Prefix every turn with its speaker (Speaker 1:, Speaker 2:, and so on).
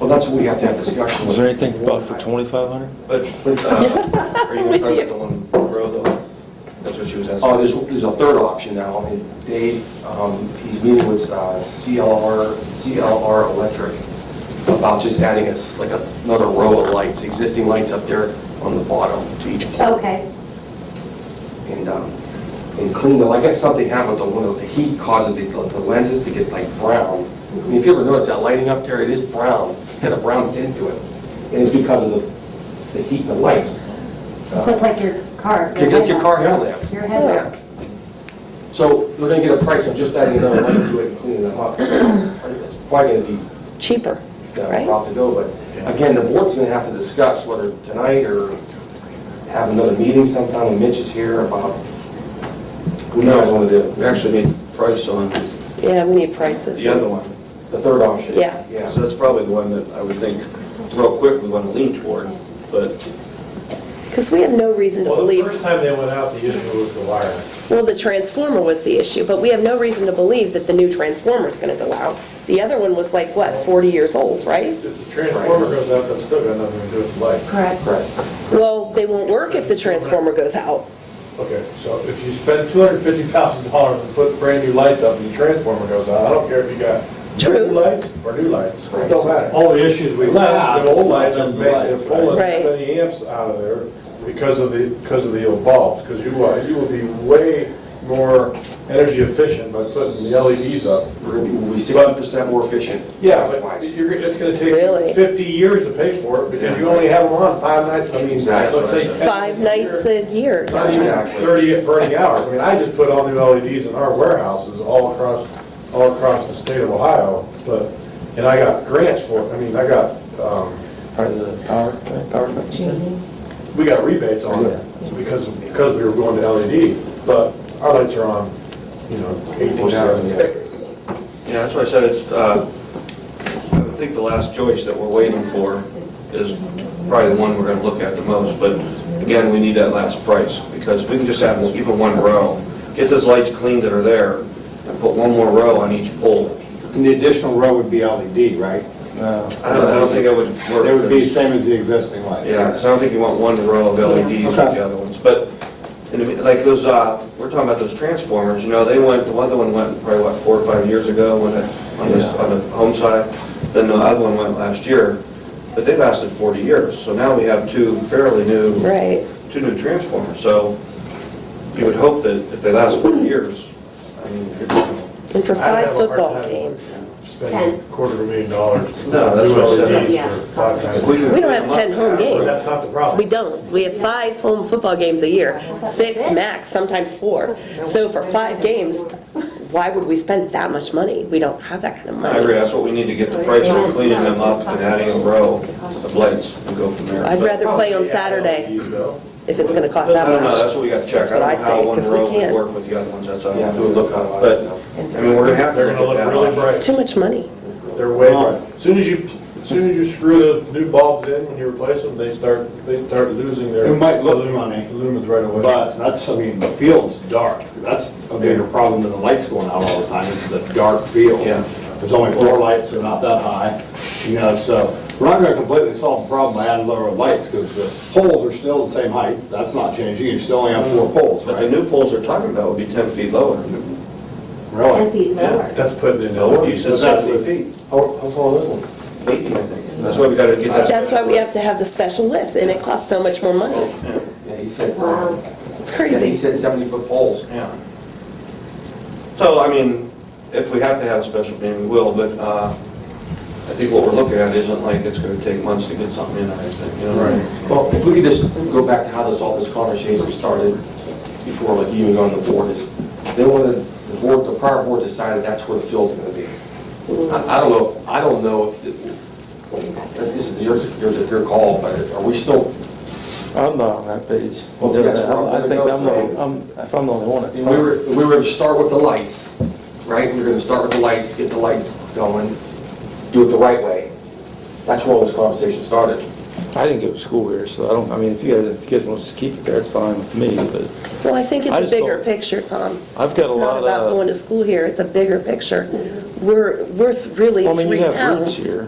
Speaker 1: Well, that's what we have to have discussion with.
Speaker 2: Is there anything about for 2,500?
Speaker 3: But, uh, are you going to target the one row though? That's what she was
Speaker 1: Uh,
Speaker 3: asking.
Speaker 1: there's, there's a third option now, I mean, Dave, um, he's meeting with uh, CLR, CLR Electric about just adding us like a- another row of lights, existing lights up there on the bottom to each pole.
Speaker 4: Okay, Oh.
Speaker 1: And, um, and clean them, I guess something happened with the windows, the heat causes the, the lenses to get like brown. I mean, if you ever notice that lighting up there, it is brown, it's got a brown tint to it, and it's because of the, the heat and the lights.
Speaker 4: so it's like your car.
Speaker 1: Your- your car headlamp.
Speaker 4: Your
Speaker 1: Yeah.
Speaker 4: headlamp.
Speaker 1: So we're going to get a price on just adding another light to it and cleaning them up. It's probably going to be
Speaker 5: cheaper,
Speaker 1: uh,
Speaker 5: right?
Speaker 1: rough to go, but again, the board's going to have to discuss whether tonight or have another meeting sometime when Mitch is here about, who knows what to do.
Speaker 3: We actually need price on
Speaker 5: Yeah, we need prices.
Speaker 3: the other one.
Speaker 1: The third option.
Speaker 5: Yeah.
Speaker 3: So that's probably the one that I would think, real quick, we want to lean toward, but
Speaker 5: Because we have no reason to
Speaker 6: Well, the
Speaker 5: believe,
Speaker 6: first time they went out, the issue was the wire.
Speaker 5: well, the transformer was the issue, but we have no reason to believe that the new transformer's going to go out. The other one was like, what, 40 years old, right?
Speaker 6: If the transformer goes out, that's still got nothing to do with light.
Speaker 4: Correct.
Speaker 1: Correct.
Speaker 5: Well, they won't work if the transformer goes out.
Speaker 6: Okay, so if you spend $250,000 and put brand-new lights up and your transformer goes out, I don't care if you got
Speaker 5: True.
Speaker 6: brand-new lights or new lights, it don't matter.
Speaker 7: All the issues we
Speaker 6: Unless
Speaker 7: have.
Speaker 6: the old lights are
Speaker 3: Right.
Speaker 6: making, they're pulling
Speaker 5: Right.
Speaker 6: so many amps out of there because of the, because of the bulbs, because you, are- you will be way more energy efficient by putting the LEDs up.
Speaker 1: We're going to be, we'll be 60% more efficient.
Speaker 6: Yeah, but
Speaker 1: Lights.
Speaker 6: you're, it's gonna take
Speaker 5: Really?
Speaker 6: 50 years to pay for it, because you only have them on five nights, I mean,
Speaker 1: Exactly.
Speaker 6: let's say... 10
Speaker 5: Five nights
Speaker 6: year,
Speaker 5: a year.
Speaker 6: Not even 30 burning hours, I mean, I just put all new LEDs in our warehouses all across, all across the state of Ohio, but, and I got grants for it, I mean, I got, um,
Speaker 2: Or the power, power company?
Speaker 6: we got rebates on it, because, because we were going to LED, but our lights are on, you know, 18 hours a day.
Speaker 3: Yeah, that's why I said it's, uh, I would think the last choice that we're waiting for is probably the one we're going to look at the most, but again, we need that last price, because if we can just have even one row, get those lights cleaned that are there, and put one more row on each pole.
Speaker 7: And the additional row would be LED, right?
Speaker 2: No.
Speaker 3: I don't, I don't think that would work.
Speaker 7: It would be the same as the existing lights.
Speaker 3: Yeah, so I don't think you want one row of LEDs with the
Speaker 7: Okay.
Speaker 3: other ones, but, and if- like those, uh, we're talking about those transformers, you know, they went, the other one went probably, what, four or five years ago, when it, on the, on the home side, then the other one went last year, but they lasted 40 years, so now we have two fairly new,
Speaker 5: Right.
Speaker 3: two new transformers, so you would hope that if they last 40 years, I mean, you're-
Speaker 5: And for
Speaker 6: I'd
Speaker 5: five
Speaker 6: have a hard
Speaker 5: football
Speaker 6: time
Speaker 5: games.
Speaker 6: Spending a quarter of a million dollars.
Speaker 3: No, that's what I said.
Speaker 6: Do LEDs for five times.
Speaker 3: if we can...
Speaker 5: We don't have 10 home games.
Speaker 6: That's not the problem.
Speaker 5: We don't. We have five home football games a year, six max, sometimes four. So for five games, why would we spend that much money? We don't have that kind of
Speaker 3: I
Speaker 5: money.
Speaker 3: agree, that's what we need to get the price for cleaning them up and adding a row of lights and go from there.
Speaker 5: I'd rather play on Saturday
Speaker 6: LEDs though.
Speaker 5: if it's going to cost
Speaker 3: I
Speaker 5: that
Speaker 3: don't know, that's
Speaker 5: much.
Speaker 3: what we got to check.
Speaker 5: That's what
Speaker 3: I don't know
Speaker 5: I
Speaker 3: how
Speaker 5: think,
Speaker 3: one
Speaker 5: 'cause we
Speaker 3: row would
Speaker 5: can't.
Speaker 3: work with the other ones, that's all.
Speaker 1: Yeah, do a look on it.
Speaker 3: But, I mean, we're going to have to
Speaker 6: They're gonna
Speaker 3: look
Speaker 6: look
Speaker 3: at that.
Speaker 6: really bright.
Speaker 5: It's too much money.
Speaker 6: They're way bright. As soon as you, as soon as you screw those new bulbs in, when you replace them, they start, they start losing their...
Speaker 7: It might look
Speaker 6: lum-
Speaker 7: funny,
Speaker 6: Lumens right away.
Speaker 7: But that's, I mean, the field's dark. That's a bigger problem than the lights going out all the time, It's the dark field.
Speaker 3: Yeah.
Speaker 7: There's only four lights, they're not that high, you know, so we're not gonna completely solve the problem by adding lower lights, because the poles are still the same height, that's not changing, you still only have four poles,
Speaker 3: But the
Speaker 7: right?
Speaker 3: new poles they're talking about would be 10 feet lower.
Speaker 7: Really?
Speaker 4: And be lower.
Speaker 6: That's putting in...
Speaker 3: No, you said
Speaker 7: But that's
Speaker 3: 70
Speaker 7: what-
Speaker 3: feet.
Speaker 1: How, how tall is one?
Speaker 3: Eighty, I think. That's why we got to get that.
Speaker 5: That's why we have to have the special lift, and it costs so much more money.
Speaker 1: Yeah, he said,
Speaker 4: Wow.
Speaker 5: It's
Speaker 1: yeah, he
Speaker 5: crazy.
Speaker 1: said 70-foot poles.
Speaker 3: Yeah. So, I mean, if we have to have a special meeting, we will, but uh, I think what we're looking at isn't like it's going to take months to get something in, I think, you know?
Speaker 1: Well, if we could just go back to how this, all this conversation started before, like, you even on the board, is they wanted, the board, the prior board decided that's where the field's gonna be. I I don't know, I don't know if, the- this is your, your, your call, but are we still,
Speaker 2: I'm not on that page.
Speaker 1: Well, that's where I'm
Speaker 2: I
Speaker 1: gonna
Speaker 2: think
Speaker 1: go
Speaker 2: I'm the,
Speaker 1: today.
Speaker 2: I'm- if I'm the only one, it's
Speaker 1: we
Speaker 2: fine.
Speaker 1: were, we were to start with the lights, right? We were gonna start with the lights, get the lights going, do it the right way. That's where all this conversation started.
Speaker 2: I didn't go to school here, so I don't, I mean, if you guys, if you guys want to keep it there, it's fine with me, but
Speaker 5: Well, I think it's
Speaker 2: I
Speaker 5: a
Speaker 2: just
Speaker 5: bigger
Speaker 2: don't-
Speaker 5: picture, Tom.
Speaker 2: I've got a
Speaker 5: It's
Speaker 2: lot
Speaker 5: not
Speaker 2: of...
Speaker 5: about going to school here, it's a bigger picture. We're, we're really
Speaker 2: Well, I mean,
Speaker 5: three
Speaker 2: you have roots
Speaker 5: towns.
Speaker 2: here.